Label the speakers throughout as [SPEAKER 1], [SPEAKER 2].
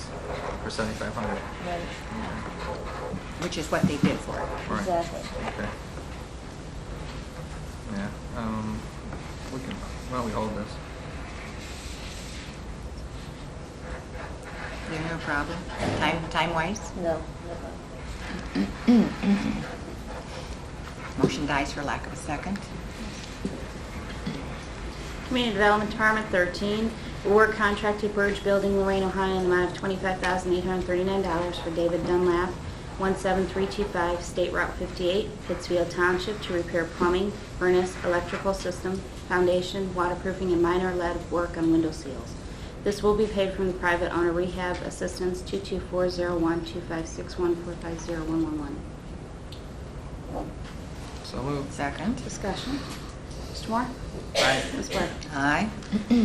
[SPEAKER 1] for seventy-five hundred.
[SPEAKER 2] Right,
[SPEAKER 3] which is what they did for it.
[SPEAKER 1] Right.
[SPEAKER 2] exactly.
[SPEAKER 1] Okay. Yeah, um, we can, why don't we hold this?
[SPEAKER 3] There's no problem, time, time-wise.
[SPEAKER 2] No,
[SPEAKER 3] Motion dies for lack of a second.
[SPEAKER 4] Community Development Department, 13, award contract to Burge Building, Lorraine, Ohio, in the amount of $25,839 for David Dunlap, 17325 State Route 58, Pittsfield Township, to repair plumbing, furnace, electrical system, foundation, waterproofing, and minor lead work on window seals. This will be paid from the private owner rehab assistance 224012561450111.
[SPEAKER 1] So moved.
[SPEAKER 3] Second.
[SPEAKER 4] Discussion. Mr. Moore?
[SPEAKER 1] Aye.
[SPEAKER 4] Ms. Blair?
[SPEAKER 3] Aye.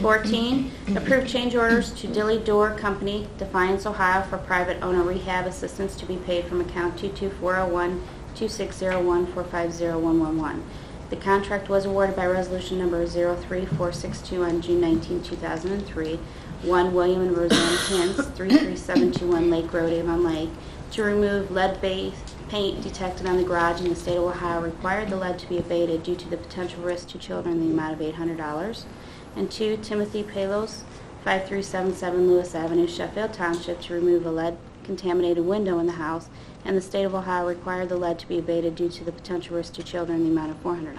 [SPEAKER 4] 14, approve change orders to Dilly Door Company, Defiance, Ohio, for private owner rehab assistance to be paid from account 22401-2601-450111. The contract was awarded by resolution number 03462 on June 19, 2003. One William and Roseanne Hintz, 33721 Lake Road, Avon Lake, to remove lead-based paint detected on the garage in the state of Ohio required the lead to be abated due to the potential risk to children in the amount of $800. And two, Timothy Palos, 5377 Lewis Avenue, Sheffield Township, to remove a lead-contaminated window in the house, and the state of Ohio required the lead to be abated due to the potential risk to children in the amount of $400.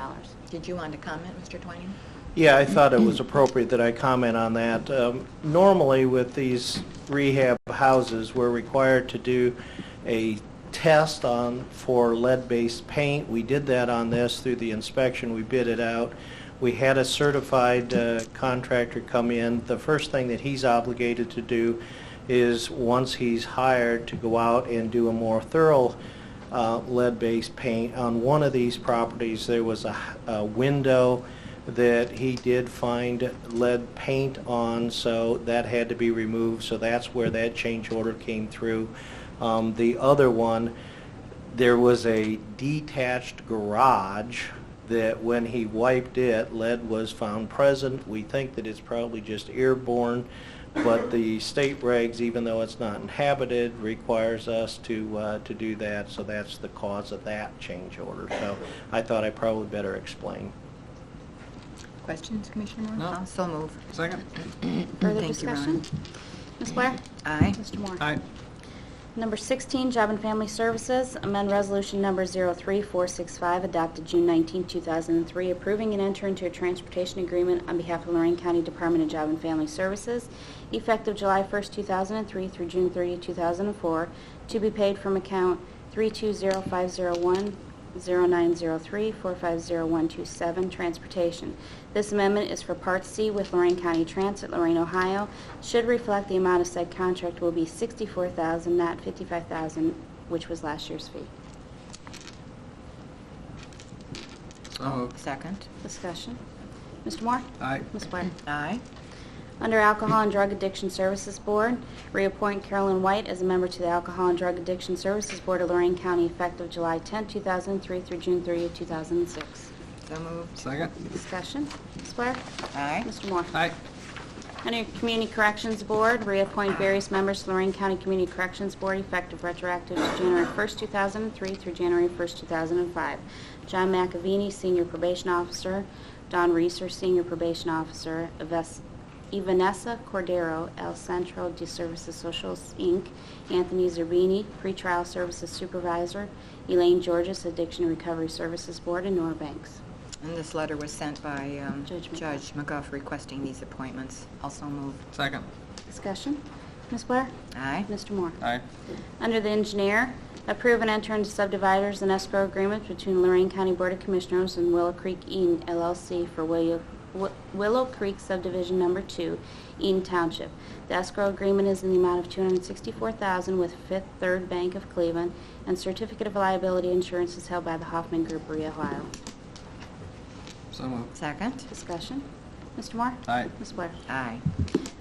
[SPEAKER 3] Did you want to comment, Mr. Twining?
[SPEAKER 5] Yeah, I thought it was appropriate that I comment on that. Um, Normally, with these rehab houses, we're required to do a test on, for lead-based paint. We did that on this through the inspection, we bid it out. We had a certified uh, contractor come in. The first thing that he's obligated to do is, once he's hired, to go out and do a more thorough uh, lead-based paint. On one of these properties, there was a, a window that he did find lead paint on, so that had to be removed, so that's where that change order came through. Um, The other one, there was a detached garage that when he wiped it, lead was found present. We think that it's probably just airborne, but the state regs, even though it's not inhabited, requires us to, uh, to do that, so that's the cause of that change order. So I thought I probably better explain.
[SPEAKER 3] Questions, Commissioner Moore?
[SPEAKER 1] No.
[SPEAKER 3] I'll So move.
[SPEAKER 1] Second?
[SPEAKER 4] Further
[SPEAKER 3] Thank you,
[SPEAKER 4] discussion?
[SPEAKER 3] Ron.
[SPEAKER 4] Ms. Blair?
[SPEAKER 3] Aye.
[SPEAKER 4] Mr. Moore?
[SPEAKER 1] Aye.
[SPEAKER 4] Number 16, Job and Family Services, amend Resolution Number 03465, adopted June 19, 2003, approving and entering into a transportation agreement on behalf of Lorraine County Department of Job and Family Services, effective July 1, 2003 through June 30, 2004, to be paid from account 320501 0903-450127, Transportation. This amendment is for Part C with Lorraine County Transit, Lorraine, Ohio. Should reflect the amount of said contract will be $64,000, not $55,000, which was last year's fee.
[SPEAKER 1] So moved.
[SPEAKER 3] Oh. Second.
[SPEAKER 4] Discussion. Mr. Moore?
[SPEAKER 1] Aye.
[SPEAKER 4] Ms. Blair?
[SPEAKER 3] Aye.
[SPEAKER 4] Under Alcohol and Drug Addiction Services Board, reappoint Carolyn White as a member to the Alcohol and Drug Addiction Services Board of Lorraine County effective July 10, 2003 through June 30, 2006.
[SPEAKER 3] So moved.
[SPEAKER 1] Second?
[SPEAKER 4] Discussion. Ms. Blair?
[SPEAKER 3] Aye.
[SPEAKER 4] Mr. Moore?
[SPEAKER 1] Aye.
[SPEAKER 4] Under Community Corrections Board, reappoint various members to Lorraine County Community Corrections Board effective retroactive to January 1st, 2003 through January 1st, 2005. John McAvini, Senior Probation Officer, Don Reeser, Senior Probation Officer, Eves- Evanessa Cordero, El Centro de Services Socials, Inc., Anthony Zerbini, Pretrial Services Supervisor, Elaine Georges, Addiction Recovery Services Board, and Nora Banks.
[SPEAKER 3] And this letter was sent by um,
[SPEAKER 4] Judge McGuff.
[SPEAKER 3] Judge McGuff requesting these appointments. Also move.
[SPEAKER 1] Second?
[SPEAKER 4] Discussion? Ms. Blair?
[SPEAKER 3] Aye.
[SPEAKER 4] Mr. Moore?
[SPEAKER 1] Aye.
[SPEAKER 4] Under the engineer, approve and enter into subdividers and escrow agreements between Lorraine County Board of Commissioners and Willow Creek Eaton LLC for Willow Wi- Willow Creek subdivision number two, Eaton Township. The escrow agreement is in the amount of $264,000 with Fifth Third Bank of Cleveland, and certificate of liability insurance is held by the Hoffman Group, Rio, Ohio.
[SPEAKER 1] So moved.
[SPEAKER 3] Second.
[SPEAKER 4] Discussion. Mr. Moore?
[SPEAKER 1] Aye.
[SPEAKER 4] Ms. Blair?
[SPEAKER 3] Aye.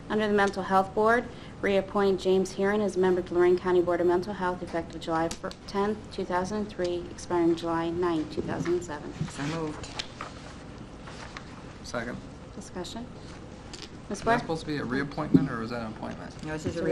[SPEAKER 4] Under the Mental Health Board, reappoint James Heron as a member to Lorraine County Board of Mental Health effective July 10, 2003, expiring July 9, 2007.
[SPEAKER 3] So moved.
[SPEAKER 1] Second?
[SPEAKER 4] Discussion? Ms.
[SPEAKER 1] Is
[SPEAKER 4] Blair?
[SPEAKER 1] that supposed to be a reappointment or is that an appointment?
[SPEAKER 3] No, this is a